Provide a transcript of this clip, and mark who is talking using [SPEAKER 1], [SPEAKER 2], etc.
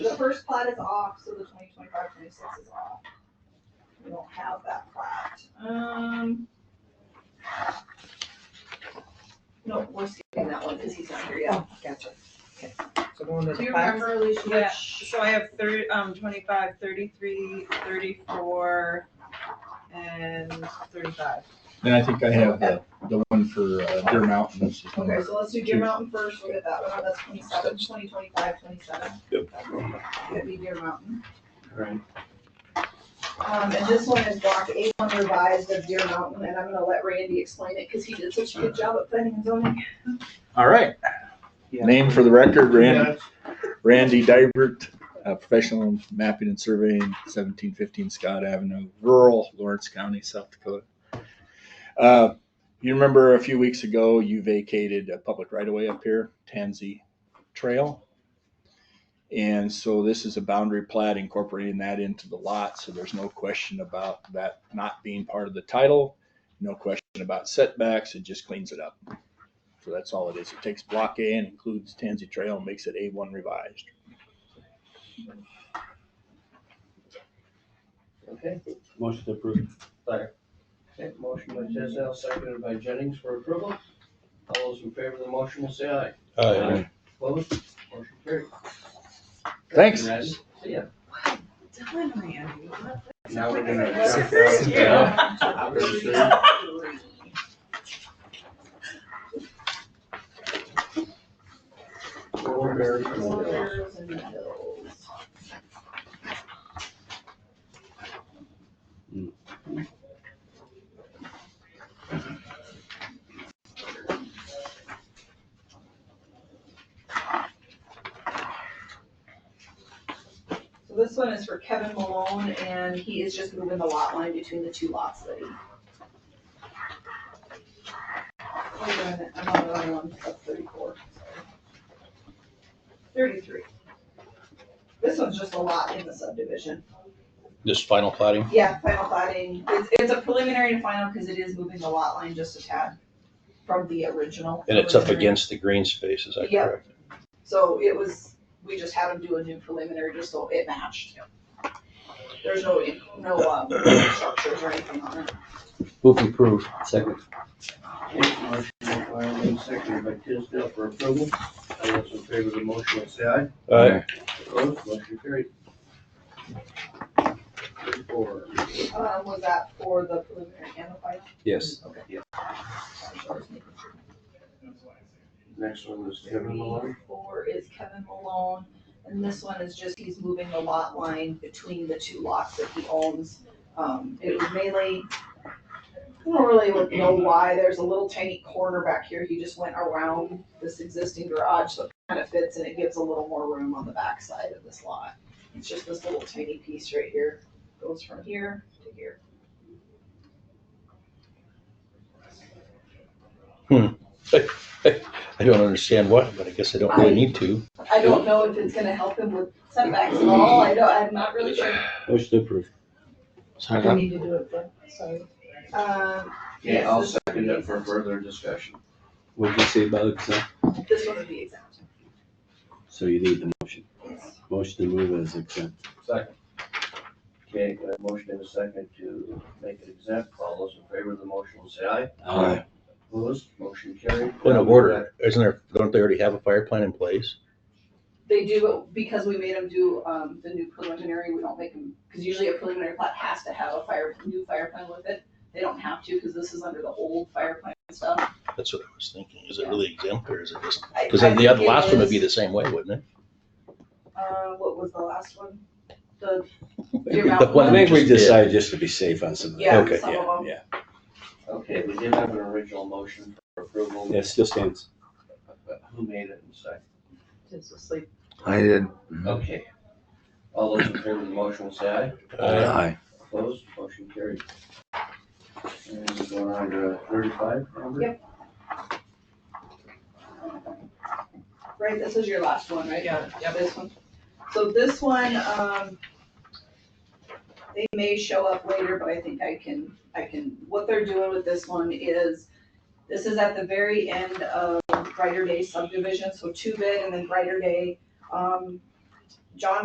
[SPEAKER 1] The first plat is off, so the 2025-26 is off. We don't have that plat. Um. No, we're skipping that one because he's not here yet.
[SPEAKER 2] Gotcha. Okay. So going to
[SPEAKER 3] Do
[SPEAKER 2] the
[SPEAKER 3] you
[SPEAKER 2] five.
[SPEAKER 3] remember, Alicia,
[SPEAKER 4] Yeah.
[SPEAKER 3] which- so I have thirty, um, twenty-five, thirty-three, thirty-four, and thirty-five.
[SPEAKER 5] And I think I have the, the one for uh, Deer Mountain, which is
[SPEAKER 1] Okay,
[SPEAKER 5] number,
[SPEAKER 1] so let's do Deer Mountain first. We'll get that one. That's 27, 2025, 27.
[SPEAKER 6] Yep.
[SPEAKER 1] That'd be Deer Mountain.
[SPEAKER 6] Right.
[SPEAKER 1] Um, and this one is block eight one revised of Deer Mountain, and I'm gonna let Randy explain it, cause he did such a good job at planning and zoning.
[SPEAKER 5] all right.
[SPEAKER 6] Yeah.
[SPEAKER 5] Name for the record, Randy,
[SPEAKER 6] Yeah,
[SPEAKER 5] Randy Dybert, uh, professional mapping and surveying, seventeen fifteen Scott Avenue, rural Lawrence County, South Dakota. Uh, You remember a few weeks ago, you vacated a public right-of-way up here, Tansy Trail. And so this is a boundary plat incorporating that into the lot, so there's no question about that not being part of the title. No question about setbacks, it just cleans it up. So that's all it is. It takes block A and includes Tansy Trail and makes it A1 revised.
[SPEAKER 7] Okay,
[SPEAKER 6] Motion to approve.
[SPEAKER 7] okay, motion by Tisdale, seconded by Jennings for approval. All those in favor of the motion will say aye.
[SPEAKER 8] uh,
[SPEAKER 6] Aye.
[SPEAKER 7] Opposed, motion carried.
[SPEAKER 5] Thanks.
[SPEAKER 7] Randy, See ya.
[SPEAKER 3] Well done, Randy. What the-
[SPEAKER 7] Now we're gonna
[SPEAKER 3] That's
[SPEAKER 7] jump
[SPEAKER 3] first
[SPEAKER 7] down.
[SPEAKER 3] year.
[SPEAKER 7] Yeah. Very soon. Four berries and one hill.
[SPEAKER 1] Hills and hills. So this one is for Kevin Malone, and he is just moving the lot line between the two lots that he. Wait a minute, I'm on the other one, that's thirty-four. Thirty-three. This one's just a lot in the subdivision.
[SPEAKER 8] Just final plating?
[SPEAKER 1] Yeah, final plating, it's, it's a preliminary to final because it is moving the lot line just a tad from the original.
[SPEAKER 8] And it's up
[SPEAKER 1] preliminary.
[SPEAKER 8] against the green space, is that
[SPEAKER 1] Yeah.
[SPEAKER 8] correct?
[SPEAKER 1] So it was, we just had them do a new preliminary, just so it matched. There's no, no, um, structures or anything on it.
[SPEAKER 8] Move to approve.
[SPEAKER 6] Second.
[SPEAKER 7] Okay, Motion by Wyman, seconded by Tisdale for approval. All those in favor of the motion will say aye.
[SPEAKER 8] Aye.
[SPEAKER 7] Opposed, motion carried. Four.
[SPEAKER 1] Um, was that for the preliminary and the final?
[SPEAKER 8] Yes.
[SPEAKER 1] Okay.
[SPEAKER 7] Yeah.
[SPEAKER 1] Sorry, just making sure.
[SPEAKER 7] Next one is Kevin Malone.
[SPEAKER 1] Thirty-four is Kevin Malone, and this one is just, he's moving the lot line between the two lots that he owns. Um, it was mainly, I don't really know why, there's a little tiny corner back here, he just went around this existing garage, so it kind of fits and it gives a little more room on the backside of this lot. It's just this little tiny piece right here, goes from here to here.
[SPEAKER 8] I don't understand what, but I guess I don't really need to.
[SPEAKER 1] I don't know if it's gonna help him with setbacks at all, I don't, I'm not really sure.
[SPEAKER 6] Motion to approve.
[SPEAKER 1] I need to do it, but, sorry. Um,
[SPEAKER 7] Okay, I'll second it for further discussion.
[SPEAKER 6] What'd you say about exempt?
[SPEAKER 1] this one would be exempt.
[SPEAKER 6] So you need the motion.
[SPEAKER 1] Yes.
[SPEAKER 6] Motion to move as exempt.
[SPEAKER 7] Second. Okay, got a motion and a second to make it exempt. All those in favor of the motion will say aye.
[SPEAKER 6] Aye.
[SPEAKER 7] Opposed, motion carried.
[SPEAKER 8] Point of order, isn't there, don't they already have a fire plan in place?
[SPEAKER 1] They do, but because we made them do, um, the new preliminary, we don't make them, because usually a preliminary plat has to have a fire, new fire plan with it. They don't have to, because this is under the old fire plan stuff.
[SPEAKER 8] That's what I was thinking. Is it really exempt or is it just?
[SPEAKER 1] I-
[SPEAKER 8] Because
[SPEAKER 1] I
[SPEAKER 8] then the other
[SPEAKER 1] think it
[SPEAKER 8] last one would
[SPEAKER 1] is-
[SPEAKER 8] be the same way, wouldn't
[SPEAKER 1] Uh, what was the last one? The,
[SPEAKER 8] it?
[SPEAKER 1] Deer Mountain
[SPEAKER 8] The one
[SPEAKER 1] I
[SPEAKER 6] I think we
[SPEAKER 8] did.
[SPEAKER 6] decided just to be safe on some of
[SPEAKER 1] yeah,
[SPEAKER 6] that.
[SPEAKER 8] Okay,
[SPEAKER 1] some of them.
[SPEAKER 6] Yeah,
[SPEAKER 7] Okay, we did have an original motion for approval.
[SPEAKER 6] it still stands.
[SPEAKER 7] But Who made it and second?
[SPEAKER 3] Just asleep.
[SPEAKER 8] I did.
[SPEAKER 7] Okay. All those in favor of the motion will say aye.
[SPEAKER 8] Uh,
[SPEAKER 6] Aye.
[SPEAKER 7] Opposed, motion carried. And we're going on to thirty-five, Amber?
[SPEAKER 1] Yep. Right, this is your last one, right?
[SPEAKER 3] Yeah,
[SPEAKER 1] Yeah, this one. So this one, um, they may show up later, but I think I can, I can, what they're doing with this one is, this is at the very end of Brighter Day subdivision, so two bid and then Brighter Day. Um, John